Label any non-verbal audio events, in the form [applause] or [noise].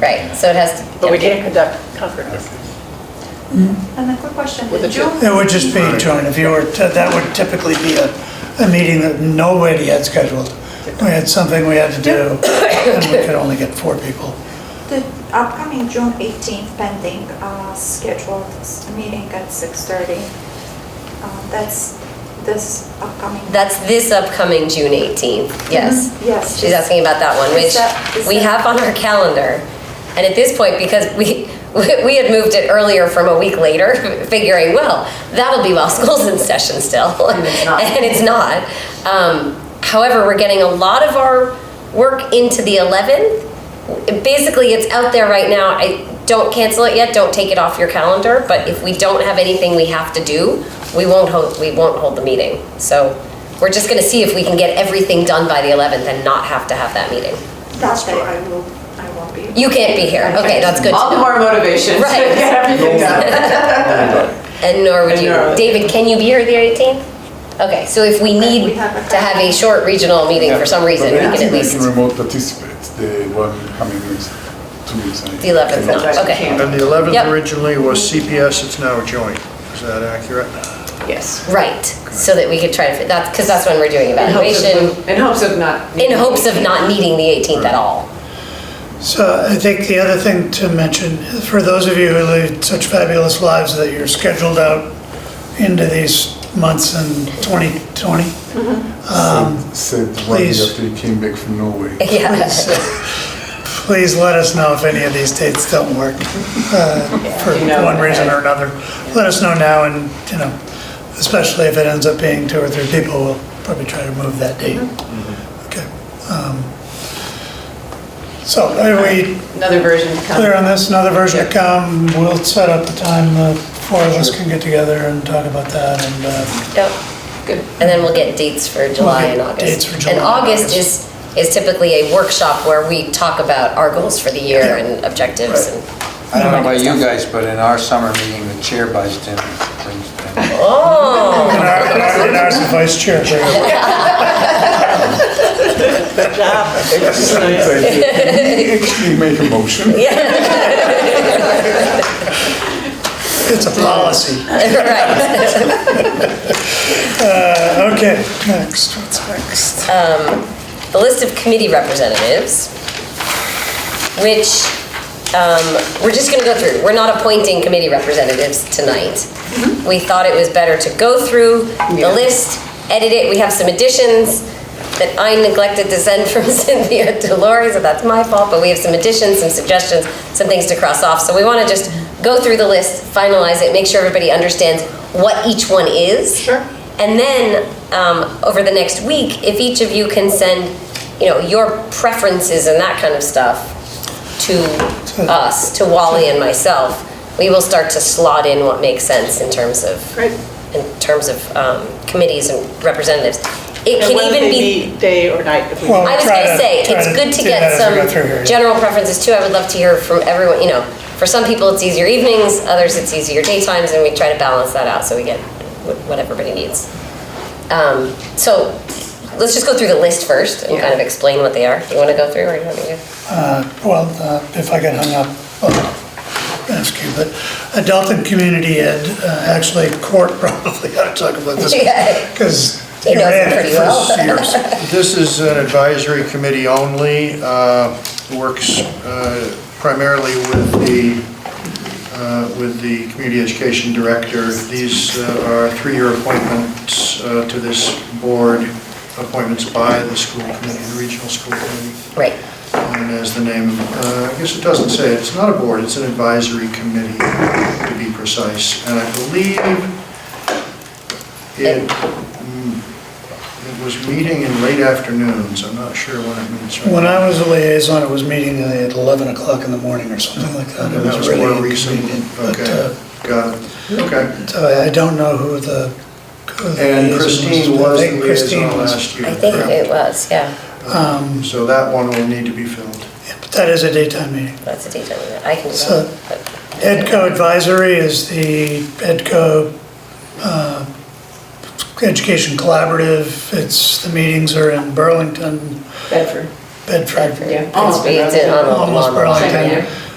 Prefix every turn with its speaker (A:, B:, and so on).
A: Right, so it has to.
B: But we can't conduct conferences.
C: And a quick question,
B: With the
C: did you?
B: two.
D: It would just be joint, if you were, to- that would typically be a, a meeting that nobody had scheduled. We had something we had to do, and we could only get four people.
C: The upcoming June 18th pending uh, scheduled s- meeting at 6:30. Uh, That's this upcoming.
A: That's this upcoming June 18th, yes.
C: Mhm, Yes.
A: She's asking about that one,
C: Is that-
A: which
C: is
A: we
C: that-
A: have on our calendar. And at this point, because we, [laughs] we had moved it earlier from a week later, [laughs] figuring, well, that'll be while [laughs] school's in session still. [laughs] And
B: it's not.
A: it's not. Um, However, we're getting a lot of our work into the 11th. Basically, it's out there right now. I, don't cancel it yet, don't take it off your calendar, but if we don't have anything we have to do, we won't hold, we won't hold the meeting. So we're just gonna see if we can get everything done by the 11th and not have to have that meeting.
C: That day I will, I won't be.
A: You can't be here. Okay, that's good to
B: All the
A: know.
B: more motivation to [laughs]
A: Right.
B: get everything done.
A: And nor would
B: And
A: you.
B: nor-
A: David, can you be here the 18th? Okay, so if we
C: we
A: need
C: have a-
A: to have a short regional meeting for some reason, we can at least,
E: I can remote participate, the one coming next, two weeks. I-
A: the 11th,
B: Sometimes
A: no,
B: you
A: okay.
B: can't.
F: And the
A: Yep.
F: 11th originally was CPS, it's now joint. Is that accurate?
B: Yes.
A: Right, so that we could try to, fit that's, because that's when we're doing
B: In hopes of-
A: evaluation,
B: In hopes of not.
A: in hopes of not needing the 18th at all. [laughs]
D: So I think the other thing to mention, for those of you who lead such fabulous lives that you're scheduled out into these months in 2020,
E: Said one day
D: please.
E: after he came back
A: [laughs]
E: from Norway. [laughs]
A: Yeah.
D: please let us know if any of these dates don't work uh, for
B: you know,
D: one reason
B: okay.
D: or another. Let us know now and, you know, especially if it ends up being two or three people, we'll probably try to move that date.
B: Mm-hmm.
D: Okay. um, So are we
B: Another version to
D: clear
B: come.
D: on this? Another version to come, we'll set up the time the four of us can get together and talk about that and, uh,
A: Yep.
B: Good.
A: And then we'll get dates for July and
D: get
A: August.
D: dates for July
A: And
D: and
A: August
D: August.
A: is, is typically a workshop where we talk about our goals for the year and objectives and.
G: I don't know about you guys, but in our summer meeting, the chair buys dinner. brings dinner.
A: Oh,
D: and our- and our- and ours is vice chair.
E: Can we Actually make a motion.
A: [laughs]
D: It's a policy.
A: right.
D: Uh, Okay, next, what's next?
A: Um, The list of committee representatives, which, um, we're just gonna go through. We're not appointing committee representatives tonight. We thought it was better to go through the
B: Mm-hmm. Yeah.
A: list, edit it. We have some additions that I neglected to send [laughs] from Cynthia to Lori, so that's my fault, but we have some additions, some suggestions, some things to cross off. So we wanna just go through the list, finalize it, make sure everybody understands what each one is.
B: Sure.
A: And then, um, over the next week, if each of you can send, you know, your preferences and that kind of stuff to us, to Wally and myself, we will start to slot in what makes sense in terms of,
B: Great.
A: in terms of um, committees and representatives. It
B: And
A: can
B: what if
A: even
B: they
A: be,
B: meet Day or night if we.
D: Well-
A: I was
D: Try
A: gonna
D: to-
A: say,
D: try
A: it's
D: to
A: good to
D: do that
A: get
D: as we
A: some
D: go through here, yeah.
A: general preferences too. I would love to hear from everyone, you know, for some people, it's easier evenings, others, it's easier daytimes, and we try to balance that out so we get wh- what everybody needs. Um, So, let's just go through the list first and kind of explain what they are. You wanna go through, or you want me to?
D: Uh, Well, uh, if I get hung up, I'll ask you, but adult and community ed, uh, actually court [laughs] probably, ought to talk about this.
A: [laughs] Yeah.
D: Because
A: He
D: you're
A: knows it
D: in
A: pretty
D: it
A: well. [laughs]
D: for years.
F: This is an advisory committee only, uh, works uh, primarily with the, uh, with the community education director. These uh, are three-year appointments uh, to this board, appointments by the school committee, the regional school committee.
A: Right.
F: And as the name, uh, I guess it doesn't say, it's not a board, it's an advisory committee, to be precise. And I believe it, mm, it was meeting in late afternoons, I'm not sure when it meets. right
D: When
F: now.
D: I was a liaison, it was meeting at 11 o'clock in the morning or something like that. It
F: And that
D: was
F: was
D: really
F: more recent,
D: inconvenient, but,
F: okay, got it, okay.
D: uh, So I I don't know who the. who the
F: And
D: liaison
F: Christine
D: but I
F: was the
D: think Christine
F: liaison
D: was.
F: last year.
A: I think
F: correct?
A: it was, yeah.
F: So that one will need to be filled.
D: Yeah, But that is a daytime meeting.
A: That's a detail. I can do
D: So-
A: that. but-
D: EdCo Advisory is the EdCo uh, Education Collaborative. It's, the meetings are in Burlington,
B: Bedford.
D: Bedford,
B: Yeah.
A: It's, it's in on the
D: almost
A: on the line, yeah.
D: Burlington.